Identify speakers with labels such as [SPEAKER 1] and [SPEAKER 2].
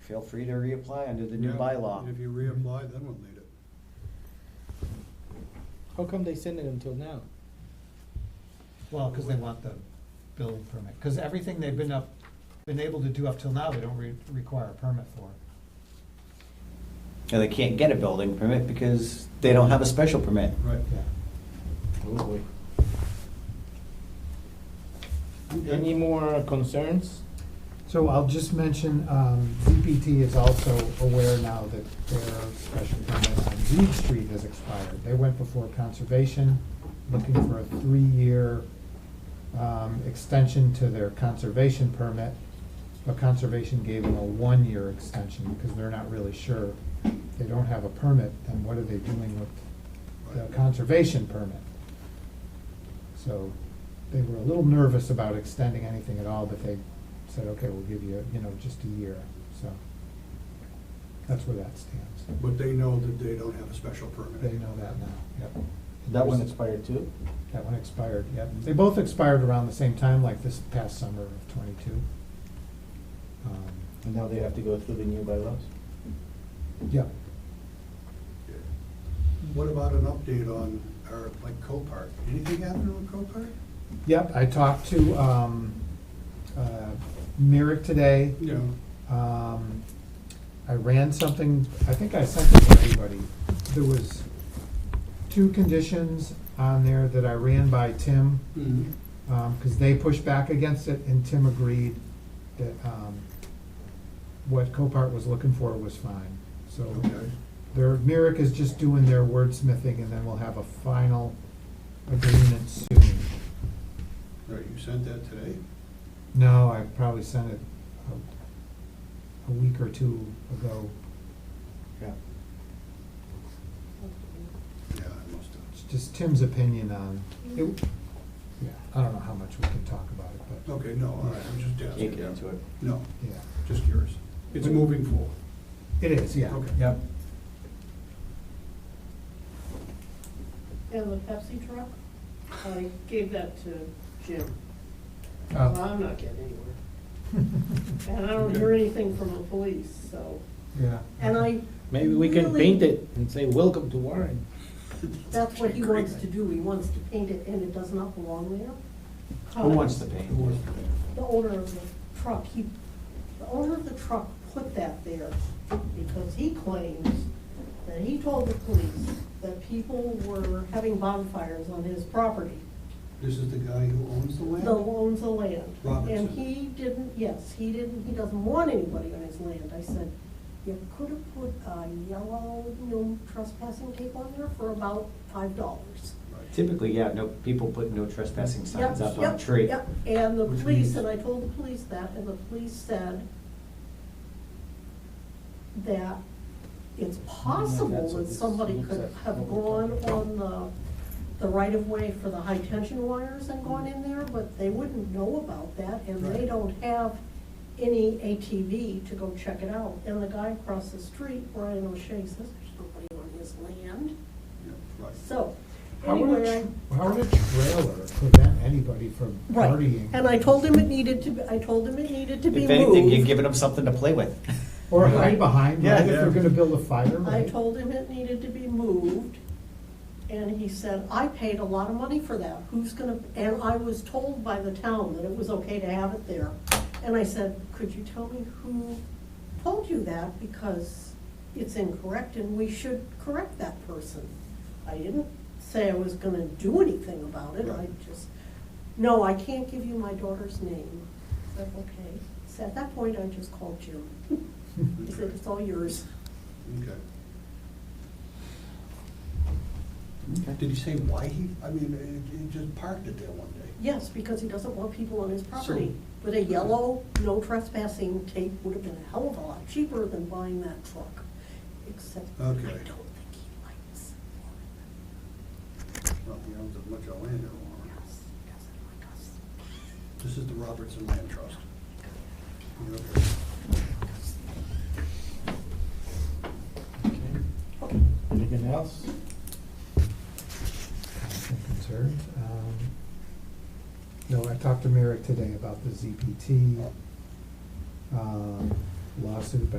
[SPEAKER 1] feel free to reapply under the new
[SPEAKER 2] Yeah,
[SPEAKER 1] bylaw.
[SPEAKER 2] If you reapply, then we'll need it.
[SPEAKER 3] How come they send it until now?
[SPEAKER 4] Well, because they want the building permit, because everything they've been up, been able to do up till now, they don't re- require a permit for.
[SPEAKER 1] And they can't get a building permit because they don't have a special permit.
[SPEAKER 2] Right.
[SPEAKER 5] Oh,
[SPEAKER 3] Any more concerns?
[SPEAKER 4] So I'll just mention, um, DPT is also aware now that their special permit on Reed Street has expired. They went before conservation, looking for a three-year, um, extension to their conservation permit. But conservation gave them a one-year extension because they're not really sure. They don't have a permit, then what are they doing with the conservation permit? So they were a little nervous about extending anything at all, but they said, okay, we'll give you, you know, just a year, so. That's where that stands.
[SPEAKER 2] But they know that they don't have a special permit.
[SPEAKER 4] They know that now, yep.
[SPEAKER 5] That one expired too?
[SPEAKER 4] That one expired, yep. They both expired around the same time, like this past summer of twenty-two. Um,
[SPEAKER 5] And now they have to go through the new bylaws?
[SPEAKER 4] Yep,
[SPEAKER 2] What about an update on our, like, Copart? Anything happening with Copart?
[SPEAKER 4] yep, I talked to, um, uh, Merrick today.
[SPEAKER 2] Yeah.
[SPEAKER 4] Um, I ran something, I think I sent it to everybody. There was two conditions on there that I ran by Tim,
[SPEAKER 2] Mhm.
[SPEAKER 4] um, cause they pushed back against it and Tim agreed that, um, what Copart was looking for was fine. So
[SPEAKER 2] Okay.
[SPEAKER 4] their, Merrick is just doing their wordsmithing and then we'll have a final agreement soon.
[SPEAKER 2] Right, you sent that today?
[SPEAKER 4] No, I probably sent it a, a week or two ago.
[SPEAKER 1] Yeah.
[SPEAKER 2] Yeah, I must
[SPEAKER 4] It's
[SPEAKER 2] have.
[SPEAKER 4] just Tim's opinion on, it,
[SPEAKER 6] Mm-hmm.
[SPEAKER 4] yeah, I don't know how much we can talk about it, but,
[SPEAKER 2] Okay, no, all right, I'm just
[SPEAKER 1] Can't
[SPEAKER 2] asking.
[SPEAKER 1] get into it.
[SPEAKER 2] No,
[SPEAKER 4] yeah.
[SPEAKER 2] just curious. It's moving forward.
[SPEAKER 4] It is, yeah,
[SPEAKER 2] Okay.
[SPEAKER 4] yep.
[SPEAKER 6] And the Pepsi truck, I gave that to Jim.
[SPEAKER 3] Oh.
[SPEAKER 6] Well,
[SPEAKER 4] Uh,
[SPEAKER 6] I'm not getting anywhere. And I don't hear
[SPEAKER 2] Okay.
[SPEAKER 6] anything from the police, so,
[SPEAKER 4] Yeah.
[SPEAKER 6] and I,
[SPEAKER 3] Maybe we can
[SPEAKER 6] Really?
[SPEAKER 3] paint it and say, welcome to Warren.
[SPEAKER 6] that's what he wants to do. He wants to paint it and it does not belong there. Uh,
[SPEAKER 1] Who wants to paint?
[SPEAKER 6] The owner of the truck, he, the owner of the truck put that there because he claims that he told the police that people were having bonfires on his property.
[SPEAKER 2] This is the guy who owns the land?
[SPEAKER 6] The owns the land.
[SPEAKER 2] Robertson.
[SPEAKER 6] And he didn't, yes, he didn't, he doesn't want anybody on his land. I said, you could have put a yellow no trespassing tape on there for about five dollars.
[SPEAKER 2] Right.
[SPEAKER 1] Typically, yeah, no, people put no trespassing signs up on a tree.
[SPEAKER 6] Yep, yep, and the
[SPEAKER 2] Which
[SPEAKER 6] police,
[SPEAKER 2] means-
[SPEAKER 6] and I told the police that, and the police said that it's possible
[SPEAKER 5] that's what
[SPEAKER 6] that
[SPEAKER 5] this
[SPEAKER 6] somebody
[SPEAKER 5] looks
[SPEAKER 6] could
[SPEAKER 5] at.
[SPEAKER 6] have gone on the, the right of way for the high tension wires and gone in there, but they wouldn't know about that, and they
[SPEAKER 2] Right.
[SPEAKER 6] don't have any ATV to go check it out. And the guy across the street, Brian O'Shea, says there's nobody on his land,
[SPEAKER 2] Yeah, right.
[SPEAKER 6] so.
[SPEAKER 4] How would
[SPEAKER 6] anyway, I-
[SPEAKER 4] a, tr- how would a trailer prevent anybody from
[SPEAKER 6] Right,
[SPEAKER 4] partying?
[SPEAKER 6] and I told him it needed to, be I told him it needed to be
[SPEAKER 1] If
[SPEAKER 6] moved.
[SPEAKER 1] anything, you're giving them something to play with.
[SPEAKER 4] Or hide behind,
[SPEAKER 1] Yeah,
[SPEAKER 4] right, if
[SPEAKER 2] yeah.
[SPEAKER 4] they're gonna build a fire,
[SPEAKER 6] I
[SPEAKER 4] right?
[SPEAKER 6] told him it needed to be moved, and he said, I paid a lot of money for that, who's gonna, and I was told by the town that it was okay to have it there. And I said, could you tell me who told you that, because it's incorrect and we should correct that person? I didn't say I was gonna do anything about it, I
[SPEAKER 2] Right.
[SPEAKER 6] just, no, I can't give you my daughter's name. I said, okay, so at that point, I just called Jim, he said, it's all yours.
[SPEAKER 2] Okay. Did he say why he, I mean, he- he just parked it there one day?
[SPEAKER 6] Yes, because he doesn't want people on his property.
[SPEAKER 2] So-
[SPEAKER 6] But a yellow, no trespassing tape would have been a hell of a lot cheaper than buying that truck. Except I don't
[SPEAKER 2] Okay.
[SPEAKER 6] think he likes Warren.
[SPEAKER 2] Well, he owns a bunch of land in Warren.
[SPEAKER 6] Yes, he doesn't like us.
[SPEAKER 2] This is the Robertson Land Trust. Okay.
[SPEAKER 5] Anything else?
[SPEAKER 4] comments and concerns. Um, No, I talked to Merrick today about the ZPT um, lawsuit, but